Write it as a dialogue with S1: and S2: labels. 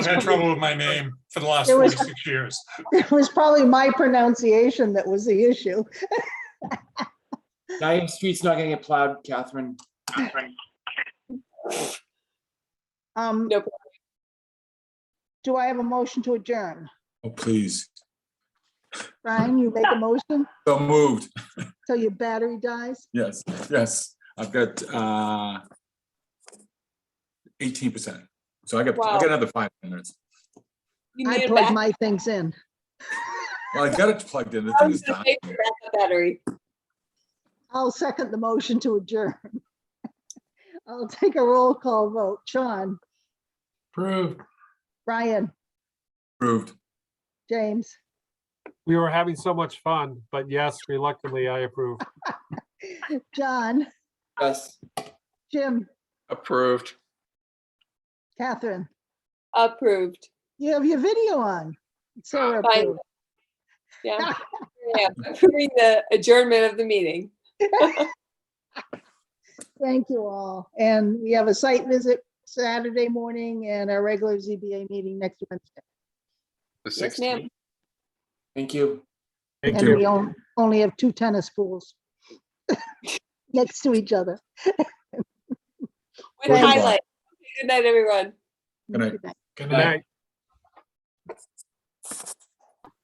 S1: I've had trouble with my name for the last
S2: There was-
S1: 46 years.
S2: It was probably my pronunciation that was the issue.
S3: Now your street's not gonna get plowed, Catherine.
S2: Um,
S4: Nope.
S2: Do I have a motion to adjourn?
S5: Oh, please.
S2: Brian, you make a motion
S5: So moved.
S2: till your battery dies?
S5: Yes, yes. I've got uh eighteen percent. So I got, I got
S4: Wow.
S5: another five minutes.
S4: You
S2: I
S4: need a
S2: plugged
S4: back-
S2: my things in.
S5: Well, I got it plugged in. The
S4: I
S5: thing
S4: was
S5: is
S4: gonna
S5: done.
S4: say backup battery.
S2: I'll second the motion to adjourn. I'll take a roll call vote. Sean,
S3: Approved.
S2: Brian,
S5: Approved.
S2: James,
S6: We were having so much fun, but yes, reluctantly, I approve.
S2: John,
S3: Yes.
S2: Jim,
S7: Approved.
S2: Catherine.
S4: Approved.
S2: You have your video on. So
S4: Fine.
S2: approved.
S4: Yeah. Yeah, Approving the adjournment of the meeting.
S2: Thank you all. And we have a site visit Saturday morning and our regular ZBA meeting next Wednesday.
S7: The
S4: Yes, ma'am.
S7: 16th.
S3: Thank you.
S6: Thank
S2: And we
S6: you.
S2: on- only have two tennis pools next to each other.
S4: With
S5: Well done.
S4: highlight. Good night, everyone.
S5: Good night.
S3: Good
S6: Good night.